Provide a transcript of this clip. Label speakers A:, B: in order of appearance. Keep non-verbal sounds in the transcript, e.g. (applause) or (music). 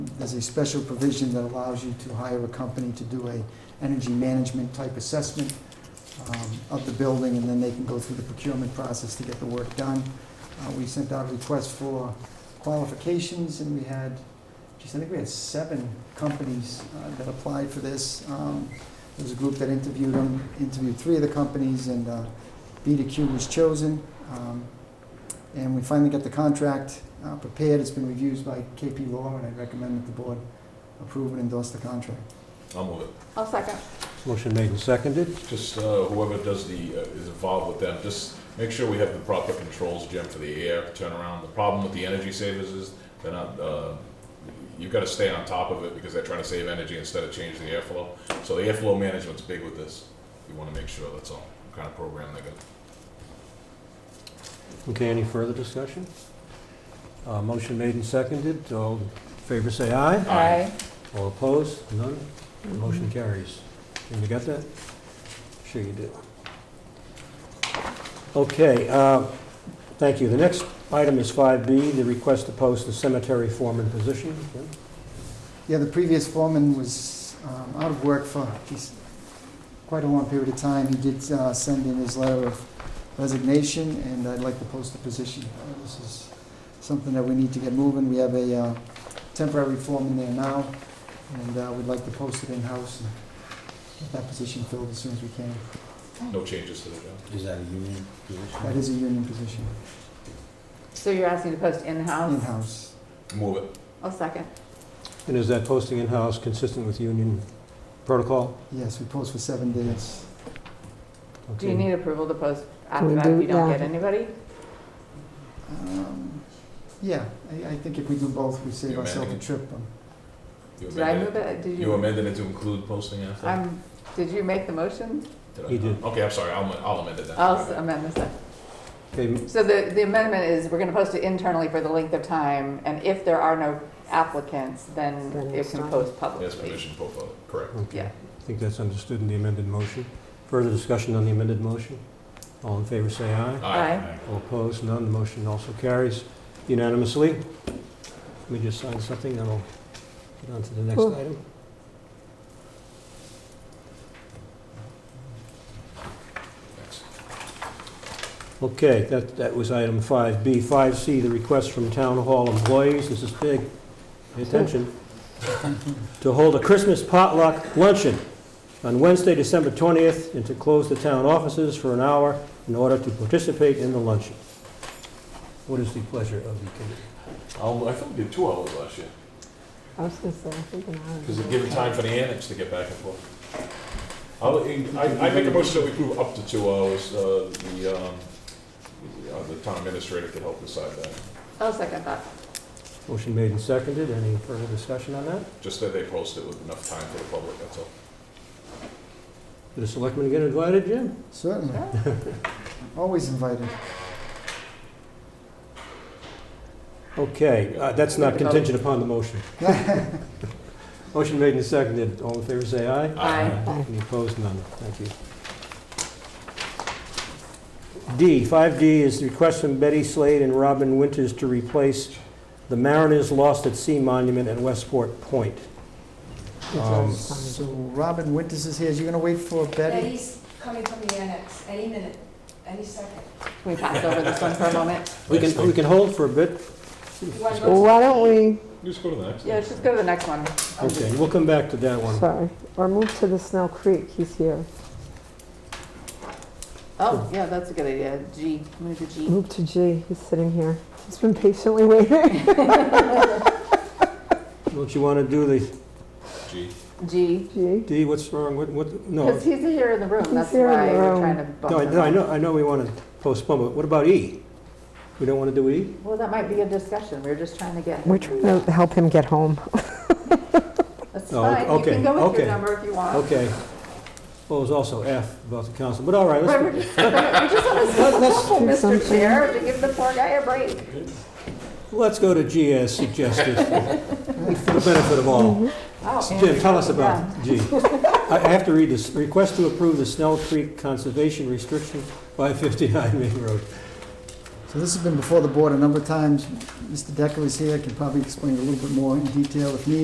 A: There's a special provision that allows you to hire a company to do a energy management type assessment um, of the building, and then they can go through the procurement process to get the work done. Uh, We sent out requests for qualifications, and we had, geez, I think we had seven companies uh, that applied for this. Um, There was a group that interviewed them, interviewed three of the companies, and uh, B to Q was chosen. Um, And we finally got the contract uh, prepared, it's been reviewed by KP Law, and I recommend that the board approve and endorse the contract.
B: I'll move it.
C: I'll second.
D: Motion made and seconded.
B: Just uh, whoever does the, uh, is involved with them, just make sure we have the proper controls, Jim, for the air turnaround. The problem with the energy savers is they're not, uh, you've got to stay on top of it because they're trying to save energy instead of change the airflow. So the airflow management's big with this. You want to make sure, that's all, what kind of program they're going to.
D: Okay, any further discussion? Uh, Motion made and seconded. All in favor, say aye. All opposed? None? Motion carries. Jim, you got that? Sure you do. Okay, uh, thank you. The next item is 5B, the request to post the cemetery foreman position. Jim?
A: Yeah, the previous foreman was um, out of work for geez, quite a long period of time. He did uh, send in his letter of resignation, and I'd like to post the position. Uh, This is something that we need to get moving. We have a uh, temporary foreman there now, and uh, we'd like to post it in-house and get that position filled as soon as we can.
B: No changes to the job.
E: Is that a union position?
A: That is a union position,
C: So you're asking to post in-house?
A: in-house.
B: Move it.
C: I'll second.
D: And is that posting in-house consistent with union protocol?
A: Yes, we post for seven days.
C: Do you
D: Okay.
C: need approval to post after
F: we
C: that if
F: do-
C: you don't
F: yeah.
C: get anybody?
A: Um, Yeah, I I think if we do both, we save
B: You're
A: ourselves a
B: managing.
A: trip. um,
B: You
C: Did I
B: amended
C: move it? Did
B: it? You
C: you?
B: amended it to include posting after?
C: I'm, did you make the motion?
B: Did I
D: He
B: not?
D: did.
B: Okay, I'm sorry, I'll I'll amend it then.
C: I'll s- amend the second.
D: Okay,
C: So the, the amendment is we're gonna post it internally for the length of time, and if there are no applicants, then
F: Then
C: it
F: it's
C: can
F: fine.
C: post
B: Yes,
C: publicly.
B: permission, profile, correct.
D: okay.
C: Yeah.
D: I think that's understood in the amended motion. Further discussion on the amended motion? All in favor, say aye.
C: Aye.
D: All opposed, none. The motion also carries unanimously. Let me just sign something, then I'll get on to the next
F: Oh.
D: item.
B: Thanks.
D: Okay, that, that was item 5B. 5C, the request from Town Hall employees, this is big, pay attention, to hold a Christmas potluck luncheon on Wednesday, December 20th, and to close the town offices for an hour in order to participate in the luncheon. What is the pleasure of the committee?
B: I'll- I think we did two hours last year.
F: I was gonna say, I think an hour.
B: Because it gives time for the annex to get back and forth. I'll, I, I make a motion that we approve up to two hours, uh, the, um, the, uh, the town administrator could help decide that,
C: I'll second that.
D: Motion made and seconded, any further discussion on that?
B: just that they post it with enough time for the public, that's all.
D: Did the selectmen get invited, Jim?
A: Certainly. Always invited.
D: Okay, uh, that's not contingent upon the motion. Motion made and seconded, all in favor say aye.
C: Aye.
F: Aye.
D: Any opposed? None. Thank you. D, 5D is the request from Betty Slade and Robin Winters to replace the Mariners Lost at Sea Monument at Westport Point. Um,
F: It's always
A: So
F: fine.
A: Robin Winters is here. Is you gonna wait for Betty?
G: Betty's coming from the annex any minute, any second.
C: Can we pass over this one for a
D: (laughs)
C: moment? Oh,
D: We can, we can hold for a bit.
G: One
F: Well,
G: more-
F: why don't we,
B: Just go to the next.
C: Yeah, let's just go to the next one.
D: Okay, we'll come back to that one.
F: sorry, or move to the Snell Creek, he's here.
C: Oh, yeah, that's a good idea. G, move to G.
F: Move to G, he's sitting here. He's been patiently waiting. (laughs)
D: Don't you want to do the,
B: G.
C: G.
F: G,
D: D, what's wrong, what, what, no.
C: Because he's here in the room,
F: He's
C: that's
F: here in
C: why
F: the
C: we're
F: room.
C: trying to bump
D: No, I-
C: him
D: no, I
C: up.
D: know, I know we want to postpone, but what about E? We don't want to do E?
C: Well, that might be a discussion, we're just trying to get.
F: we're trying to help him get home.
C: That's
D: Oh,
C: fine, you
D: okay,
C: can go with
D: okay.
C: your number if you want.
D: Okay. Well, there's also F about the council, but all right, let's
C: But We're just we're just on
D: (laughs)
C: a
D: Let- let's
C: simple,
F: do
C: Mr.
F: something.
C: Chair, to give the poor guy a break.
D: Let's go to G as suggested, for the benefit of all.
C: Oh,
D: Jim,
C: Andrew,
D: tell us
C: yeah.
D: about G. I I have to read this. Request to approve the Snell Creek Conservation Restriction by 59 Main Road.
A: So this has been before the board a number of times. Mr. Decker is here, can probably explain a little bit more in detail if needed.